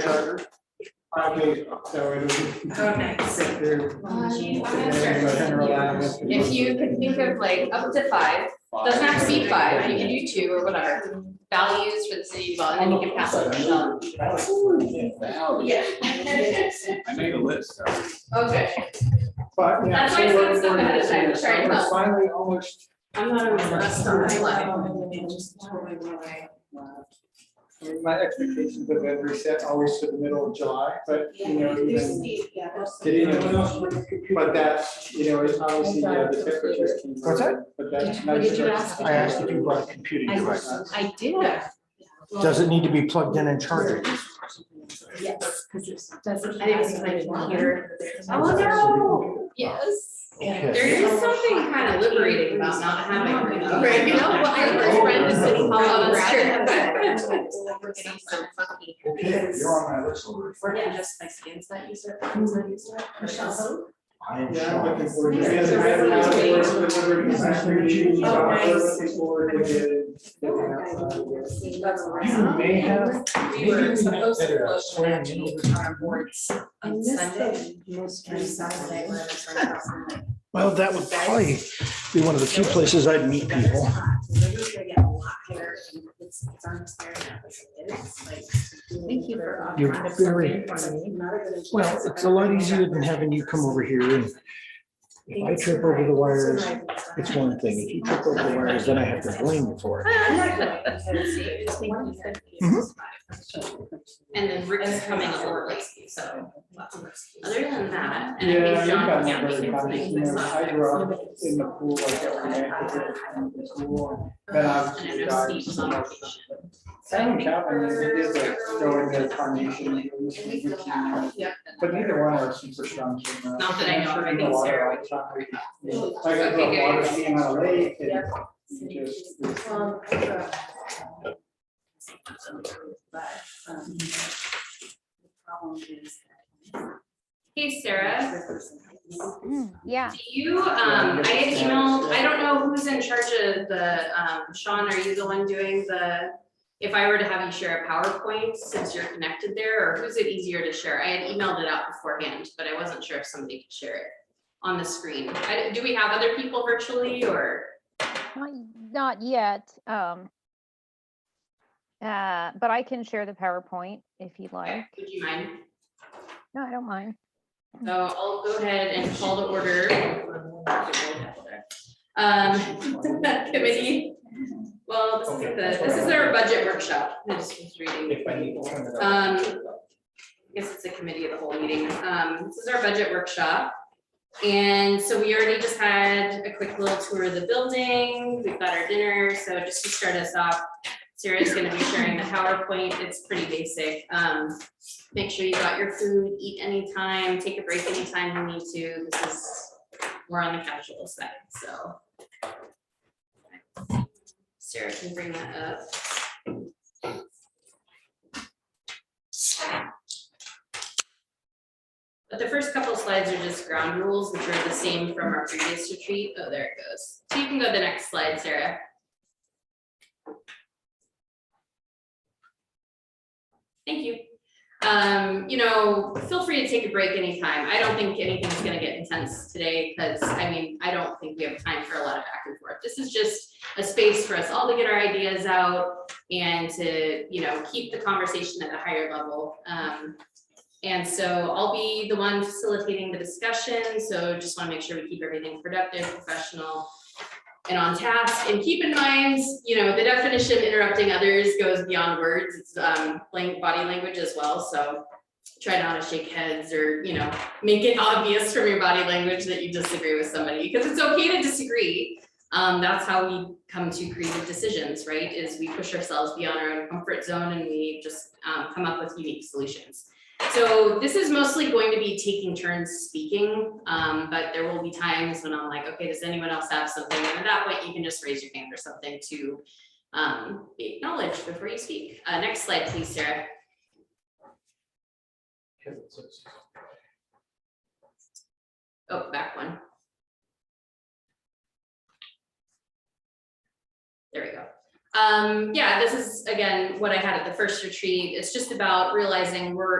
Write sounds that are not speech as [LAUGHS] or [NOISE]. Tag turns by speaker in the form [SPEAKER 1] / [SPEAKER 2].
[SPEAKER 1] charter. Five days, so it'll
[SPEAKER 2] Oh, nice.
[SPEAKER 1] get through.
[SPEAKER 2] Jeez, I'm gonna start
[SPEAKER 1] Turn
[SPEAKER 2] thinking
[SPEAKER 1] around and
[SPEAKER 2] yours.
[SPEAKER 1] get through.
[SPEAKER 3] If you can think of like up to five, doesn't have to be five, you can do two or whatever, values for the city of Bellevue, and then you can pass it on. [LAUGHS] Yeah.
[SPEAKER 4] I made a list.
[SPEAKER 3] Okay,
[SPEAKER 1] But, yeah.
[SPEAKER 3] That's why I
[SPEAKER 1] so
[SPEAKER 3] said
[SPEAKER 1] we're-
[SPEAKER 3] stuff
[SPEAKER 1] we're
[SPEAKER 3] ahead of
[SPEAKER 1] gonna
[SPEAKER 3] time,
[SPEAKER 1] see.
[SPEAKER 3] sorry,
[SPEAKER 1] We're
[SPEAKER 3] no.
[SPEAKER 1] Finally, almost,
[SPEAKER 2] I'm not impressed on my life.
[SPEAKER 5] It just totally went away.
[SPEAKER 1] I mean, my expectations have been reset always to the middle of July, but, you know,
[SPEAKER 5] There's
[SPEAKER 1] even,
[SPEAKER 5] Steve, yeah, there's some-
[SPEAKER 1] Did anyone else but that's, you know, it's obviously, yeah, the temperatures came.
[SPEAKER 6] What's
[SPEAKER 1] that? But that's.
[SPEAKER 3] What did you
[SPEAKER 1] nice.
[SPEAKER 3] ask?
[SPEAKER 6] I asked you to run a computing device.
[SPEAKER 3] I did.
[SPEAKER 6] Does it need to be plugged in and charged?
[SPEAKER 5] Yes, because it's, that's.
[SPEAKER 3] I think it's like here.
[SPEAKER 2] Oh, no.
[SPEAKER 3] Yes.
[SPEAKER 6] Yes.
[SPEAKER 3] There is something kind of liberating about not having.
[SPEAKER 2] Right,
[SPEAKER 3] You know, well, I have this friend in City Hall,
[SPEAKER 2] Oh,
[SPEAKER 3] that's
[SPEAKER 2] that's
[SPEAKER 3] true, but.
[SPEAKER 2] true.
[SPEAKER 5] [LAUGHS]
[SPEAKER 3] We're getting so funky.
[SPEAKER 4] Okay, you're on my list already.
[SPEAKER 5] We're not just my skin's not used to it, it's not used to it. Michelle.
[SPEAKER 4] I am
[SPEAKER 1] Yeah, I'm looking
[SPEAKER 4] shocked.
[SPEAKER 1] forward to it.
[SPEAKER 5] It's a
[SPEAKER 1] I haven't had to work
[SPEAKER 3] resolution.
[SPEAKER 1] with the Liberty Factory Chiefs, so
[SPEAKER 5] Oh,
[SPEAKER 1] I'm
[SPEAKER 5] nice.
[SPEAKER 1] looking forward with it.
[SPEAKER 5] That's right.
[SPEAKER 1] You may have
[SPEAKER 5] We were supposed to vote for Angie on our boards on Sunday. Most recent Sunday. we're in the front house.
[SPEAKER 6] Well, that would probably be one of the few places I'd meet
[SPEAKER 5] Weather's
[SPEAKER 6] people.
[SPEAKER 5] hot, so we're just gonna get a lot higher and it's, it's almost there now, it's- it's like. Thank you for.
[SPEAKER 6] You're very- Well, it's a lot easier than having you come over here and if I trip over the wires, it's one thing. If you trip over the wires, then I have to
[SPEAKER 5] [LAUGHS]
[SPEAKER 6] blame you for it. Mm-hmm.
[SPEAKER 3] And then Rick's coming over late, so. Other than that, and I
[SPEAKER 1] Yeah,
[SPEAKER 3] think
[SPEAKER 1] you
[SPEAKER 3] John
[SPEAKER 1] got my
[SPEAKER 3] County
[SPEAKER 1] brother
[SPEAKER 3] can
[SPEAKER 1] Tommy,
[SPEAKER 3] make
[SPEAKER 1] you
[SPEAKER 3] this
[SPEAKER 1] know,
[SPEAKER 3] up.
[SPEAKER 1] I grew up in the pool, like every night, because it was kind of the pool, and then
[SPEAKER 3] Uh, And I
[SPEAKER 1] obviously
[SPEAKER 3] know
[SPEAKER 1] died
[SPEAKER 3] Steve's
[SPEAKER 1] so
[SPEAKER 3] on
[SPEAKER 1] much.
[SPEAKER 3] vacation.
[SPEAKER 1] I don't count, I mean, it is like throwing their carnation. it was routine. But neither one are super strong. you know.
[SPEAKER 3] Not that I know of, I
[SPEAKER 1] I'm sure
[SPEAKER 3] think
[SPEAKER 1] the water
[SPEAKER 3] Sarah
[SPEAKER 1] outside, you know, Like I
[SPEAKER 3] Okay,
[SPEAKER 1] go
[SPEAKER 3] good.
[SPEAKER 1] water skiing on a lake and
[SPEAKER 5] Yeah.
[SPEAKER 1] you just.
[SPEAKER 3] Um,
[SPEAKER 5] uh, But, um. The problem is.
[SPEAKER 3] Hey, Sarah,
[SPEAKER 7] Mm, Yeah,
[SPEAKER 3] do you, um, I had emailed, I don't know who's in charge of the, um, Sean, are you the one doing the? If I were to have you share a PowerPoint, since you're connected there, or who's it easier to share? I had emailed it out beforehand, but I wasn't sure if somebody could share it on the screen. I- Do we have other people virtually or?
[SPEAKER 7] not, not yet. Um, uh, but I can share the PowerPoint if you'd like.
[SPEAKER 3] Okay, Would you mind?
[SPEAKER 7] No, I don't mind.
[SPEAKER 3] So I'll go ahead and call to order. Um, [LAUGHS] committee, well, this isn't the, this is our budget workshop, I just was reading.
[SPEAKER 1] If I need to turn it up.
[SPEAKER 3] Um, I guess it's a committee of the whole meeting. Um, this is our budget workshop. And so we already just had a quick little tour of the building. We've got our dinner. So just to start us off, Sarah's gonna be sharing the PowerPoint. It's pretty basic. Um, make sure you got your food, eat anytime, take a break anytime you need to. This is, we're on the casual side, so. Sarah can bring that up. But the first couple slides are just ground rules, which are the same from our previous retreat. Oh, there it goes. So you can go to the next slide, Sarah. Thank you. Um, you know, feel free to take a break anytime. I don't think anything's gonna get intense today, because I mean, I don't think we have time for a lot of back and forth. This is just a space for us all to get our ideas out and to, you know, keep the conversation at a higher level. Um, and so I'll be the one facilitating the discussion, so just want to make sure we keep everything productive, professional, and on task. And keep in mind, you know, the definition interrupting others goes beyond words, it's um, lang- body language as well, so try not to shake heads or, you know, make it obvious from your body language that you disagree with somebody, because it's okay to disagree. Um, that's how we come to creative decisions, right? Is we push ourselves beyond our own comfort zone and we just um, come up with unique solutions. So this is mostly going to be taking turns speaking, um, but there will be times when I'm like, okay, does anyone else have something? And at that point, you can just raise your hand or something to um, be acknowledged before you speak. Uh, next slide, please, Sarah. Oh, back one. There we go. Um, yeah, this is again, what I had at the first retreat. It's just about realizing we're